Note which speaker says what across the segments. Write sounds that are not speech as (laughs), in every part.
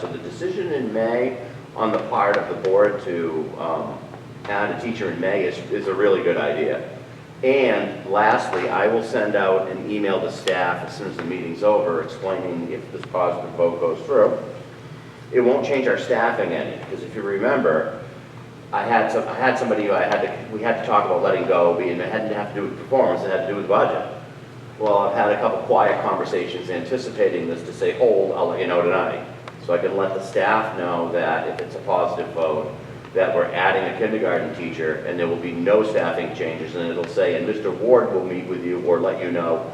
Speaker 1: So the decision in May on the part of the board to um, add a teacher in May is, is a really good idea. And lastly, I will send out an email to staff as soon as the meeting's over explaining if this positive vote goes through. It won't change our staffing any, because if you remember, I had some, I had somebody, who I had to, we had to talk about letting go, being, it hadn't have to do with performance, it had to do with budget. Well, I've had a couple quiet conversations anticipating this to say, hold, I'll let you know tonight. So I can let the staff know that if it's a positive vote, that we're adding a kindergarten teacher and there will be no staffing changes. And it'll say, and Mr. Ward will meet with you or let you know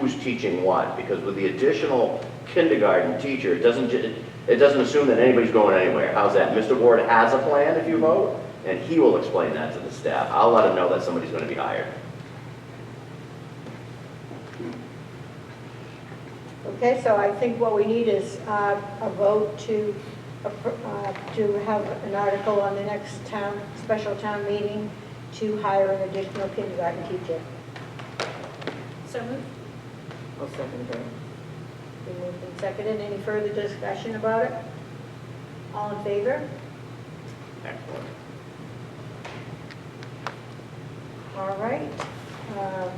Speaker 1: who's teaching what. Because with the additional kindergarten teacher, it doesn't, ju- it doesn't assume that anybody's going anywhere. How's that? Mr. Ward has a plan if you vote and he will explain that to the staff. I'll let him know that somebody's going to be hired.
Speaker 2: Okay, so I think what we need is uh, a vote to, appro- uh, to have an article on the next town, special town meeting to hire an additional kindergarten teacher.
Speaker 3: So moved.
Speaker 4: I'll second that.
Speaker 2: We moved and seconded. Any further discussion about it? All in favor?
Speaker 1: Excellent.
Speaker 2: All right. Um,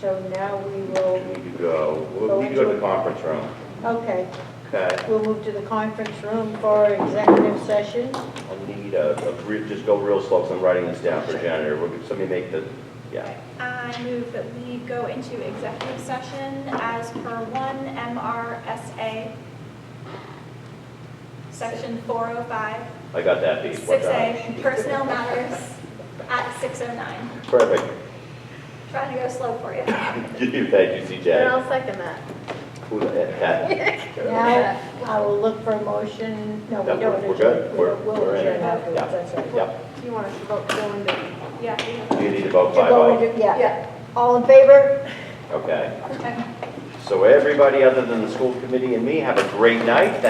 Speaker 2: So now we will,
Speaker 1: We need to go, we'll need to go to the conference room,
Speaker 2: okay,
Speaker 1: okay?
Speaker 2: we'll move to the conference room for executive session.
Speaker 1: I'll need a, a re- just go real slow, because I'm writing this down for janitor, We're- somebody make the, yeah.
Speaker 3: I move that we go into executive session as per one MRSA, section 405,
Speaker 1: I got that beat. What time?
Speaker 3: 6A, personnel matters at 6:09.
Speaker 1: Perfect. (laughs)
Speaker 3: Trying to go slow for you.
Speaker 1: You- Thank you, CJ.
Speaker 2: second that.
Speaker 1: Who the heck, (laughs) Pat?
Speaker 2: Now, I will look for a motion, no, we
Speaker 1: No,
Speaker 2: don't.
Speaker 1: we're- we're
Speaker 2: adjourn.
Speaker 1: good. We're-
Speaker 2: We'll
Speaker 1: we're in.
Speaker 2: adjourn afterwards,
Speaker 1: Yeah.
Speaker 2: that's right.
Speaker 1: Yep,
Speaker 2: You want us to vote going to?
Speaker 3: Yeah.
Speaker 1: you need to vote
Speaker 2: To
Speaker 1: five oh,
Speaker 2: go into, yeah. All in favor?
Speaker 1: okay.
Speaker 3: Okay.
Speaker 1: So everybody other than the school committee and me, have a great night.